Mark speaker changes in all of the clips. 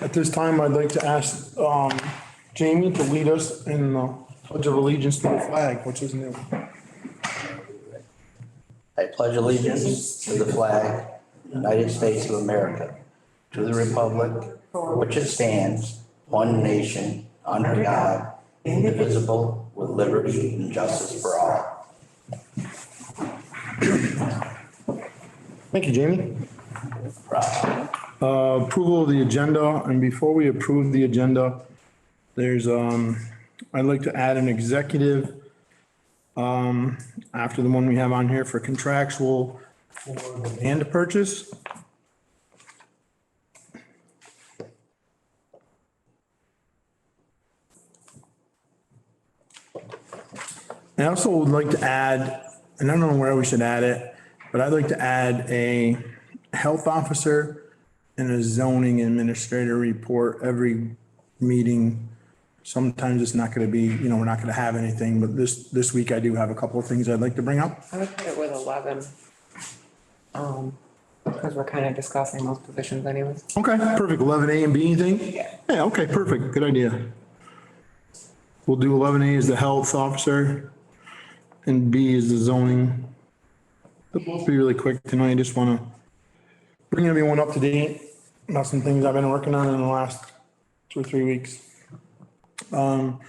Speaker 1: At this time, I'd like to ask um, Jamie to lead us in the pledge of allegiance to the flag, which is new.
Speaker 2: I pledge allegiance to the flag, United States of America, to the republic for which it stands, one nation, under God, indivisible, with liberty and justice for all.
Speaker 1: Thank you, Jamie. Uh, Approval of the agenda, and before we approve the agenda, there's, um, I'd like to add an executive um, after the one we have on here for contractual for the land purchase. I also would like to add, and I don't know where we should add it, but I'd like to add a health officer and a zoning administrator report every meeting. Sometimes it's not gonna be, you know, we're not gonna have anything, but this, this week I do have a couple of things I'd like to bring up.
Speaker 3: I would put it with eleven. Um, because we're kind of discussing those positions anyways.
Speaker 1: Okay, perfect. Eleven A and B, anything? Yeah, okay, perfect. Good idea. We'll do eleven A as the health officer and B is the zoning. They'll both be really quick tonight. I just wanna bring everyone up to date about some things I've been working on in the last two or three weeks. Um,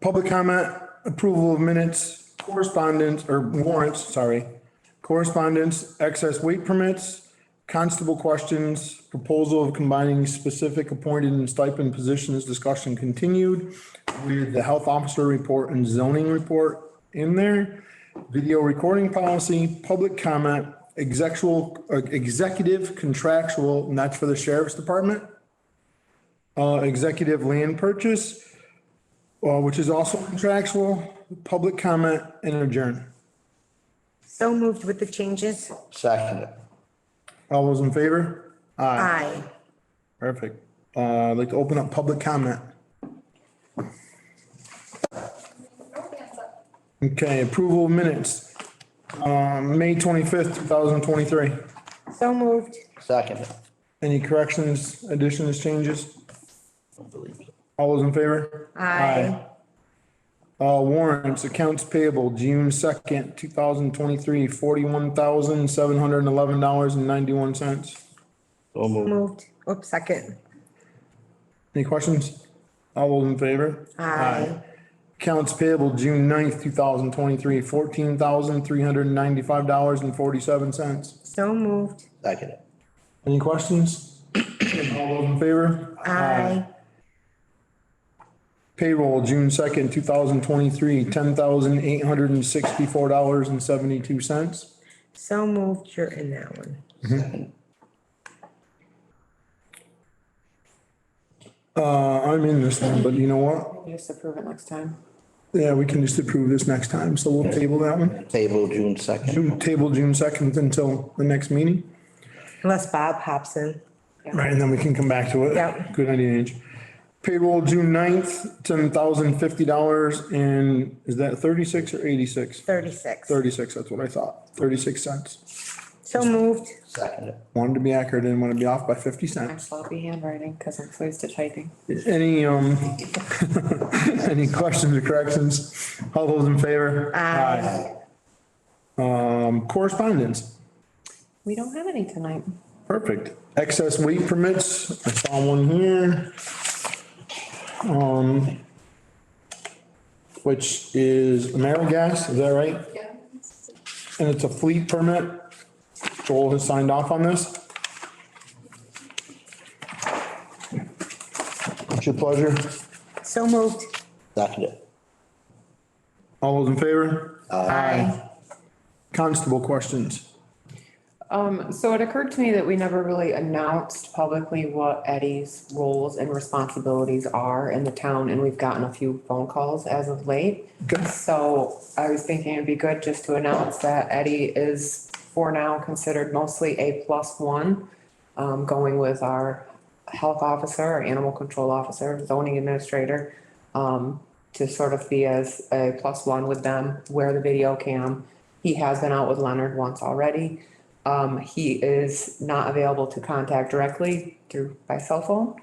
Speaker 1: public comment, approval of minutes, correspondence, or warrants, sorry. Correspondence, excess weight permits, constable questions, proposal of combining specific appointed and stipend positions, discussion continued. With the health officer report and zoning report in there. Video recording policy, public comment, execual, uh, executive contractual, and that's for the sheriff's department. Uh, executive land purchase, uh, which is also contractual, public comment and adjourn.
Speaker 4: So moved with the changes?
Speaker 2: Second,
Speaker 1: All those in favor?
Speaker 4: Aye.
Speaker 1: Perfect. Uh, I'd like to open up public comment. Okay, approval of minutes. Um, May twenty-fifth, two thousand twenty-three.
Speaker 4: So moved.
Speaker 2: second.
Speaker 1: Any corrections, additions, changes? All those in favor?
Speaker 4: Aye.
Speaker 1: Aye. Uh, warrants, accounts payable, June second, two thousand twenty-three, forty-one thousand, seven hundred and eleven dollars and ninety-one cents.
Speaker 2: So moved.
Speaker 4: Moved. Oops, second.
Speaker 1: Any questions? All those in favor?
Speaker 4: Aye.
Speaker 1: Accounts payable, June 9th, two thousand twenty-three, fourteen thousand, three hundred and ninety-five dollars and forty-seven cents.
Speaker 4: So moved.
Speaker 2: Second,
Speaker 1: Any questions? All those in favor?
Speaker 4: Aye.
Speaker 1: Payroll, June second, two thousand twenty-three, ten thousand, eight hundred and sixty-four dollars and seventy-two cents.
Speaker 4: So moved. You're in that one.
Speaker 1: Uh, I'm in this one, but you know what?
Speaker 3: Just approve it next time.
Speaker 1: Yeah, we can just approve this next time, so we'll table that one.
Speaker 2: table June second.
Speaker 1: June- Table June second until the next meeting.
Speaker 4: Unless Bob hops in.
Speaker 1: Right, and then we can come back to it.
Speaker 4: Yep.
Speaker 1: Good idea, Ange. Payroll June 9th, ten thousand fifty dollars and is that thirty-six or eighty-six?
Speaker 4: Thirty-six.
Speaker 1: Thirty-six, that's what I thought, thirty-six cents.
Speaker 4: So moved.
Speaker 2: Second,
Speaker 1: Wanted to be accurate, didn't want to be off by fifty
Speaker 3: I'm
Speaker 1: cents.
Speaker 3: sloppy handwriting because I'm so used to typing.
Speaker 1: Any, um, any questions or corrections? All those in favor?
Speaker 4: Aye.
Speaker 1: Aye. Um, correspondence,
Speaker 3: We don't have any tonight.
Speaker 1: perfect. Excess weight permits, I saw one here. Um, which is AmeriGas, is that right?
Speaker 5: Yeah.
Speaker 1: And it's a fleet permit. Joel has signed off on this. It's your pleasure.
Speaker 4: So moved.
Speaker 2: second,
Speaker 1: All those in favor?
Speaker 4: Aye.
Speaker 1: Constable questions.
Speaker 3: Um, so it occurred to me that we never really announced publicly what Eddie's roles and responsibilities are in the town, and we've gotten a few phone calls as of late.
Speaker 1: Okay.
Speaker 3: So I was thinking it'd be good just to announce that Eddie is for now considered mostly a plus one, um, going with our health officer, our animal control officer, zoning administrator, um, to sort of be as a plus one with them, wear the video cam. He has been out with Leonard once already. Um, he is not available to contact directly through by cell phone.